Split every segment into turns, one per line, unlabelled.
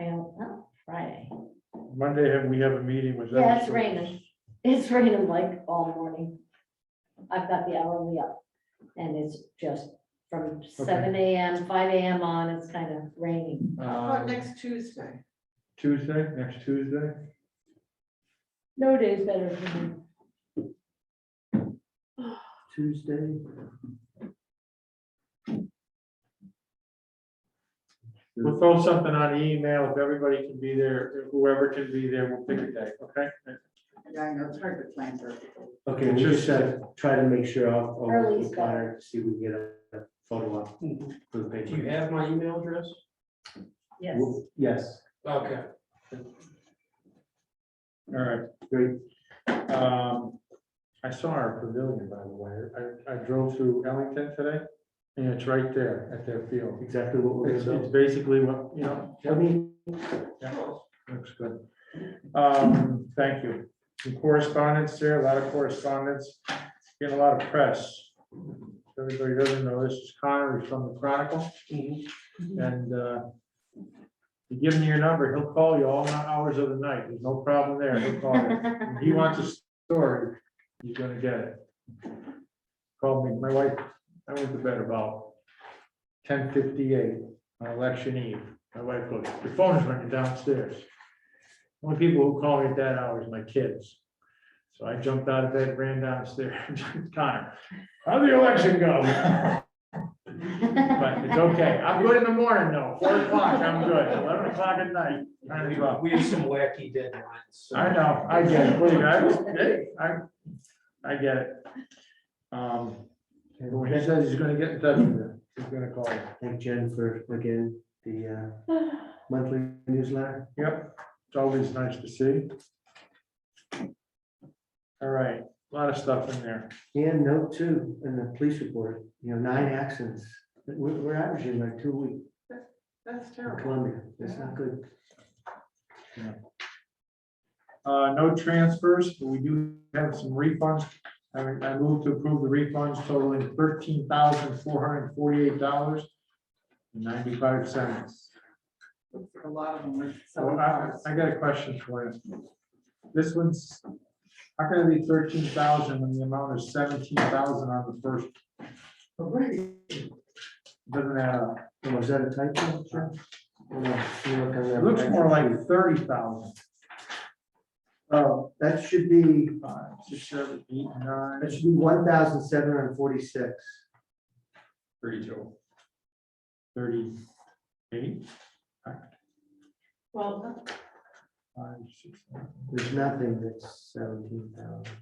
"Oh,
Monday, have- we have a meeting with them.
Yeah, it's
so
raining. It's raining like all morning. I've got the hourly up and it's just from seven AM, five AM on, it's kind of raining.
How about
um,
next Tuesday?
Tuesday, next Tuesday,
No day is better for me.
Tuesday.
we'll throw something on the email, if everybody can be there, whoever can be there, we'll pick a day, okay?
Yeah, I know, it's hard to plan for people.
Okay, we just uh, try to make sure I'll, I'll work
Early's
with Connor, to see if we can get a a photo op for the
Do you
paper.
have my email address?
Yes.
We'll- Yes,
Okay.
All right,
great.
Um, I saw our pavilion, by the way. I, I drove through Ellington today, and it's right there at their field.
Exactly what we're
It's,
gonna
it's
do.
basically what, you know,
I mean,
yeah, looks good. Um, thank you. Some Correspondence there, a lot of correspondence, getting a lot of press. Everybody doesn't know, this is Connor he's from the Chronicle, and, uh, you give him your number, he'll call you all hours of the night. There's no problem there. He'll call you. If he wants a story, he's gonna get it. Called me, my wife, I went to bed about ten fifty-eight on election eve. My wife goes, your phone is ringing downstairs. Only people who call me at that hour is my kids. So I jumped out of bed, ran downstairs, Connor, how'd the election go? But it's okay. I'm good in the morning though, four o'clock, I'm good, eleven o'clock at night. nine o'clock.
We have some wacky deadlines. so-
I know, I get it, believe me, I was, hey, I, I get it. Um, and when he says he's gonna get in touch with you, he's gonna call you,
thank Jen for, again, the uh, monthly newsletter.
yep, it's always nice to see. All right, a lot of stuff in there,
And note too, in the police report, you know, nine accidents. We're, we're averaging like two a week
That's
in
terrible.
Columbia. That's not good.
uh, no transfers, but we do have some refunds. I, I move to approve the refunds totaling thirteen thousand four hundred and forty-eight dollars and ninety-five cents.
A lot of them were
So
so
I, I got a question for you. This one's, how can it be thirteen thousand when the amount is seventeen thousand on the first,
Right.
doesn't add up?
Oh, Was that a typo? Sure.
It looks more like thirty thousand.
Oh, that should be,
Five, six, seven, eight, nine.
that should be one thousand seven hundred and forty-six.
Thirty-two. Thirty-eight,
Well,
five, six, seven.
There's nothing that's seventeen thousand.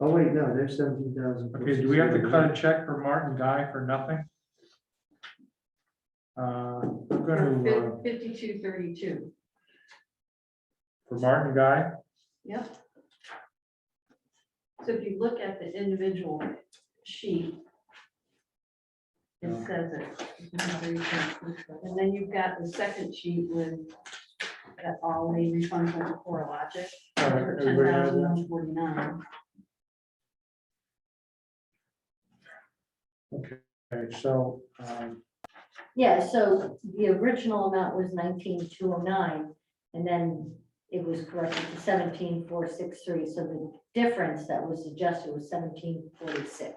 Oh, wait, no, there's seventeen thousand.
Okay, do we have to cut a check for Martin Guy for nothing? Uh, I'm gonna, uh,
fifty-two thirty-two.
for Martin Guy,
Yep. So if you look at the individual sheet, it
Yeah.
says it. And then you've got the second sheet with that all the refunds went to CoreLogic
All right,
for ten
everybody has
thousand
that?
one forty-nine.
okay, so, um,
Yeah, so the original amount was nineteen two oh nine, and then it was corrected to seventeen four six three, so the difference that was adjusted was seventeen forty-six.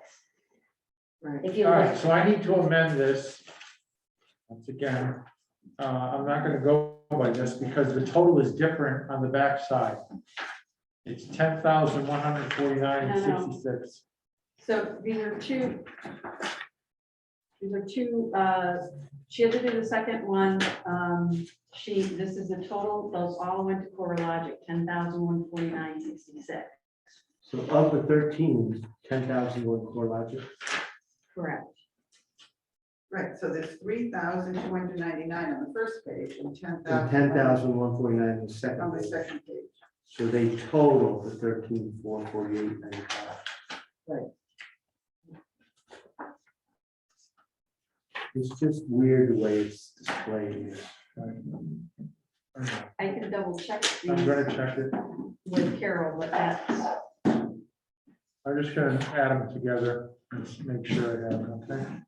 Right.
If you
All
look,
right, so I need to amend this. Once again, uh, I'm not gonna go by this because the total is different on the backside. It's ten thousand one hundred forty-nine and
No, no.
sixty-six.
So these are two. These are two, uh, she had to do the second one, um, she, this is the total, those all went to CoreLogic, ten thousand one forty-nine sixty-six.
So of the thirteen, ten thousand were CoreLogic.
Correct.
Right, so there's three thousand two hundred ninety-nine on the first page and ten
and
thousand.
ten thousand one forty-nine on the
On
second.
the
page.
second page.
So they total the thirteen, four forty-eight, ninety-five.
Right.
It's just weird the way it's displayed here.
I'm
I can double check
gonna
these
check it.
with Carol, uh, but that's.
I'm just gonna add them together and s- make sure I have them, okay?